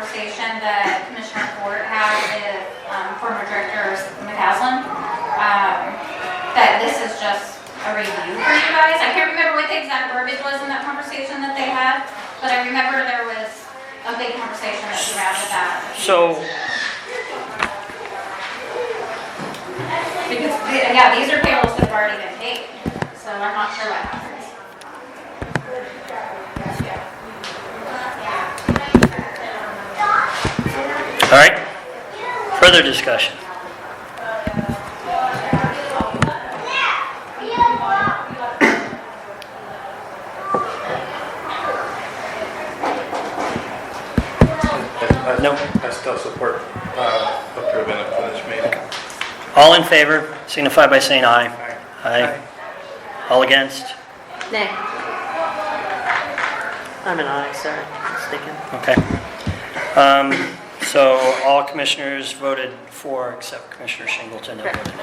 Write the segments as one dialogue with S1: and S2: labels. S1: conversation that Commissioner Ford had with um, former Director McCaslin, um, that this is just a review for you guys. I can't remember what the exact verbiage was in that conversation that they had, but I remember there was a big conversation that we had about.
S2: So,
S1: Because, yeah, these are payrolls that have already been paid, so I'm not sure what happens.
S2: all right, further discussion.
S3: I- I-
S2: No.
S3: Uh, I still support uh, approving it for this meeting.
S2: All in favor, signify by saying aye. Aye. All against?
S4: Nay. I'm an aye, sorry, mistaken.
S2: Okay. Um, So all commissioners voted for except Commissioner Shingleton. that voted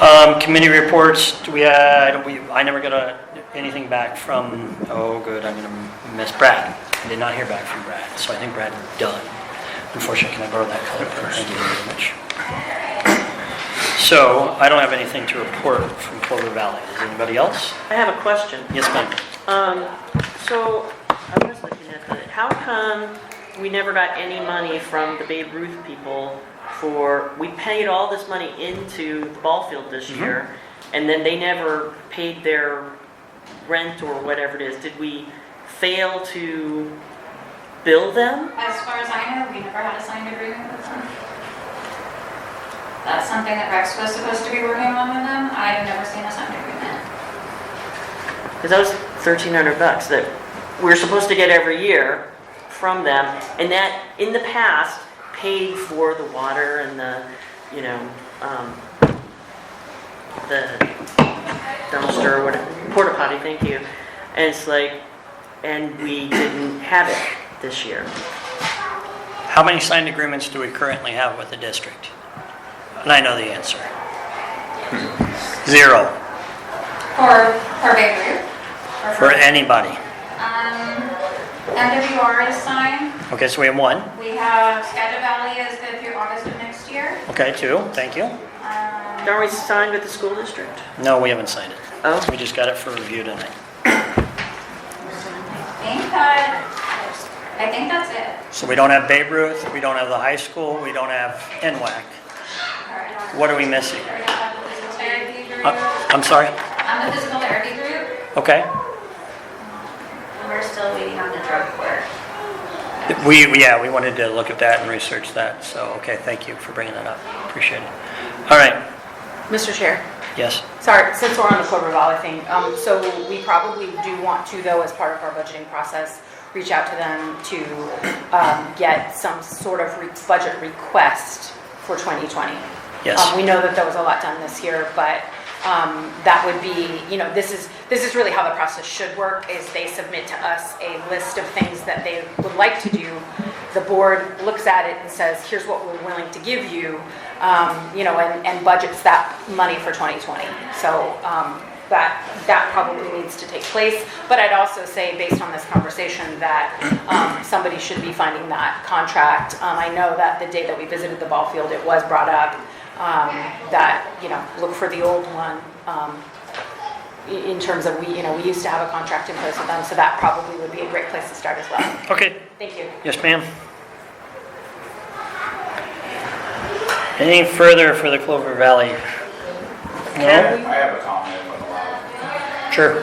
S2: no. Um, Committee reports, do we, uh, I don't- we- I never got a- anything back from, oh, good, I'm going to miss Brad. I did not hear back from Brad, so I think Brad is done. Unfortunately, can I borrow that color? pen? Thank you very much. So I don't have anything to report from Clover Valley. Does anybody else?
S4: I have a question.
S2: Yes, ma'am.
S4: Um, so, I was looking at the, how come we never got any money from the Babe Ruth people for, we paid all this money into the ball field this year, and then they never paid their rent or whatever it is? Did we fail to bill them?
S1: As far as I know, we never had a signed agreement with them. That's something that Rex was supposed to be working on with them. I've never seen a signed agreement.
S4: Because that was thirteen hundred bucks that we're supposed to get every year from them, and that, in the past, paid for the water and the, you know, um, the dumpster, or whatever, porta potty, thank you. And it's like, and we didn't have it this year.
S2: How many signed agreements do we currently have with the district? And I know the answer. Zero,
S1: For, for Bay Ruth? or
S2: for anybody.
S1: Um, MWR is signed.
S2: Okay, so we have one.
S1: We have Skagit Valley is good through August of next year.
S2: Okay, two, thank you.
S1: Um,
S4: Aren't we signed with the school district?
S2: No, we haven't signed it.
S4: Oh,
S2: We just got it for review tonight.
S1: I think that, I think that's it.
S2: So we don't have Babe Ruth, we don't have the high school, we don't have NWAC. What are we missing?
S1: We don't have the physical therapy group.
S2: Uh, I'm sorry?
S1: On the physical therapy group,
S2: Okay.
S1: we're still waiting on the drug court.
S2: We, we- yeah, we wanted to look at that and research that, so, okay, thank you for bringing that up. Appreciate it. All right,
S5: Mr. Chair,
S2: yes.
S5: sorry, since we're on the Clover Valley thing, um, so we probably do want to, though, as part of our budgeting process, reach out to them to, um, get some sort of re- budget request for 2020.
S2: Yes.
S5: Um, we know that there was a lot done this year, but, um, that would be, you know, this is, this is really how the process should work, is they submit to us a list of things that they would like to do. The board looks at it and says, here's what we're willing to give you, um, you know, and, and budgets that money for 2020. So, um, that, that probably needs to take place. But I'd also say, based on this conversation, that, um, somebody should be finding that contract. Um, I know that the day that we visited the ball field, it was brought up, um, that, you know, look for the old one, um, i- in terms of, we, you know, we used to have a contract in place with them, so that probably would be a great place to start as well.
S2: Okay,
S5: Thank you.
S2: Yes, ma'am. Anything further for the Clover Valley? No?
S6: I have a comment if I'm allowed.
S2: Sure.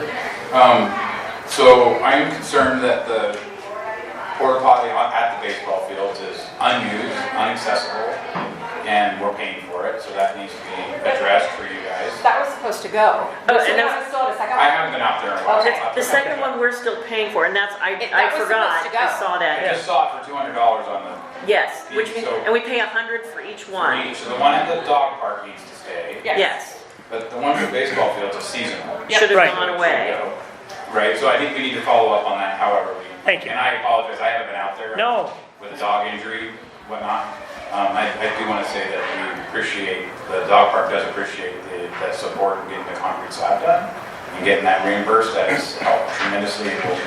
S6: So I am concerned that the porta potty on- at the baseball fields is unused, inaccessible, and we're paying for it, so that needs to be addressed for you guys.
S5: That was supposed to
S4: Oh,
S5: go. So
S4: and
S5: that
S4: that's-
S5: was still a second
S6: I
S5: one.
S6: haven't been out there in a while. so I'll have to-
S4: the second one we're still paying for, and that's, I,
S5: It-
S4: I
S5: that was
S4: forgot,
S5: supposed to
S4: I
S5: go.
S4: saw
S6: I
S4: that.
S6: just saw it for two hundred dollars on the,
S4: Yes, which means,
S6: So-
S4: and we pay a hundred for each
S6: for
S4: one.
S6: each, so the one at the dog park needs to stay,
S5: Yes.
S4: Yes.
S6: but the one at the baseball field's a seasonal.
S4: should
S2: Right.
S4: have gone away.
S6: Right, so I think we need to follow up on that however we.
S2: Thank you.
S6: And I apologize, I haven't been out there.
S2: No,
S6: with a dog injury, whatnot. Um, I, I do want to say that we appreciate, the dog park does appreciate the, the support in getting the concrete slab done and getting that reimbursed. That has helped tremendously and will